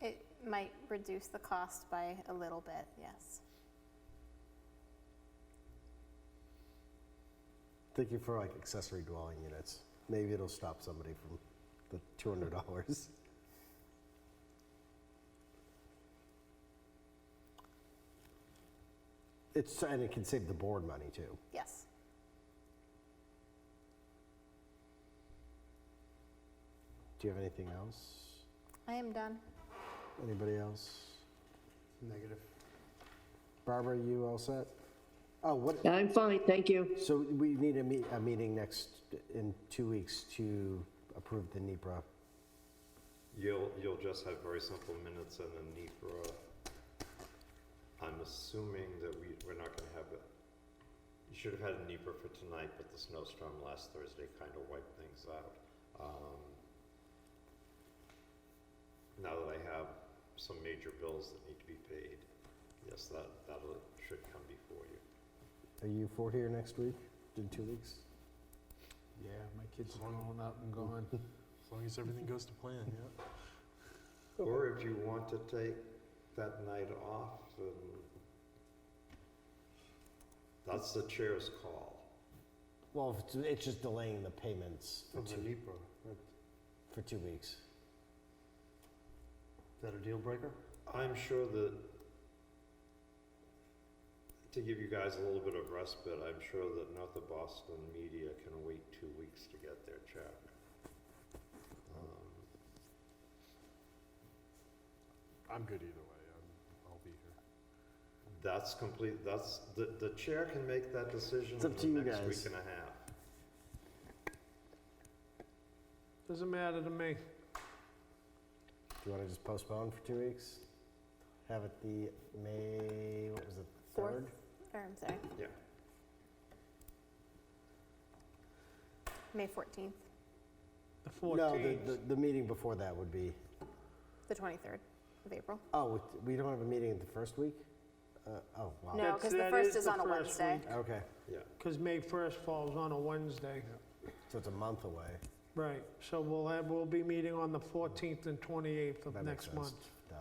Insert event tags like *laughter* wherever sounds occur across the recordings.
It might reduce the cost by a little bit, yes. Thinking for like accessory dwelling units, maybe it'll stop somebody from the two hundred dollars. It's, and it can save the board money too. Yes. Do you have anything else? I am done. Anybody else? Negative. Barbara, you all set? Oh, what, I'm fine, thank you. so we need a meet, a meeting next, in two weeks to approve the E NEPR. You'll, you'll just have very simple minutes and a need for a, I'm assuming that we, we're not gonna have a, you should have had a NEPA for tonight, but the snowstorm last Thursday kind of wiped things out. Um, Now that I have some major bills that need to be paid, yes, that, that'll, should come before you. Are you for here next week, in two weeks? Yeah, my kids are grown up and gone. As long as everything goes to plan, yeah. Or if you want to take that night off and that's the chair's call. *laughs* Well, if it's- it's just delaying the payments for Of the two, NEPA, for two weeks. is that a deal breaker? I'm sure that, to give you guys a little bit of respite, I'm sure that not the Boston media can wait two weeks to get their check. Um, I'm good either way, I'm, I'll be here. That's complete, that's, the, the chair can make that decision It's up to in the you next guys. week and a half. Doesn't matter to me. Do you want to just postpone for two weeks? Have it the May, what was it, Fourth. third? Or, I'm sorry, Yeah, May 14th, The No, the, the, the meeting before that would be, the 23rd of April. oh, it- we don't have a meeting the first week? Uh, oh, wow. No, That's- because the that first is is the on a first Wednesday. week. Okay, yeah. Because May 1st falls on a Wednesday. so it's a month away. Right, so we'll have, we'll be meeting on the 14th and 28th That of makes next sense. month. Duh.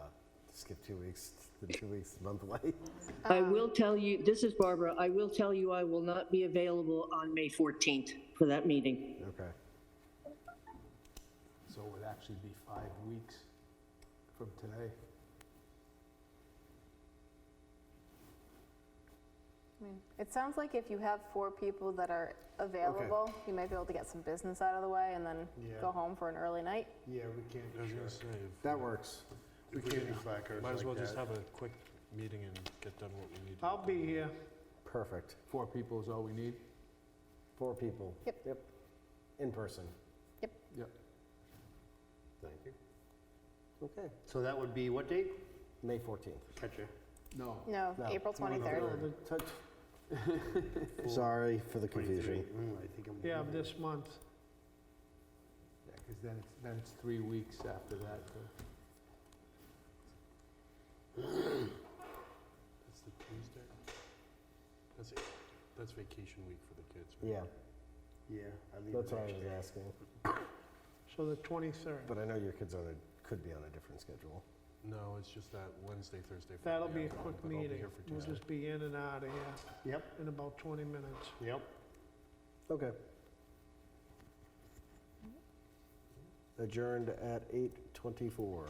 Skip two weeks, the two weeks, a month away. *laughs* I will tell you, this is Barbara, I will tell you I will not be available on May 14th for that meeting. Okay. So it would actually be five weeks from today. I mean, It sounds like if you have four people that are available, you might be able to get some business out of the way and then Yeah. go home for an early night. Yeah, we can't I was do gonna shirts. say, if- That works. We if we can't can- do placards might as well like just that. have a quick meeting and get done what we need to. get I'll be done. here. Perfect. Four people is all we need? Four people. Yep. Yep. In person. Yep. Thank you. Okay. So that would be what date? May 14th. Gotcha. No. No, No, April 23rd. Sorry for the confusion. 23. Mm, I think I'm. Yeah, of this month. Yeah, because then it's, then it's three weeks after that. That's the Tuesday? That's it, that's vacation week for the kids, right? Yeah, Yeah. I leave that's the what I next was day. asking. So the 23rd. But I know your kids on a, could be on a different schedule. No, it's just that Wednesday, Thursday. Friday, That'll be a I'm gone, quick but I'll be meeting. here for We'll Tuesday. just be in and out of here Yep, in about 20 minutes. yep. Okay. Adjourned at 8:24.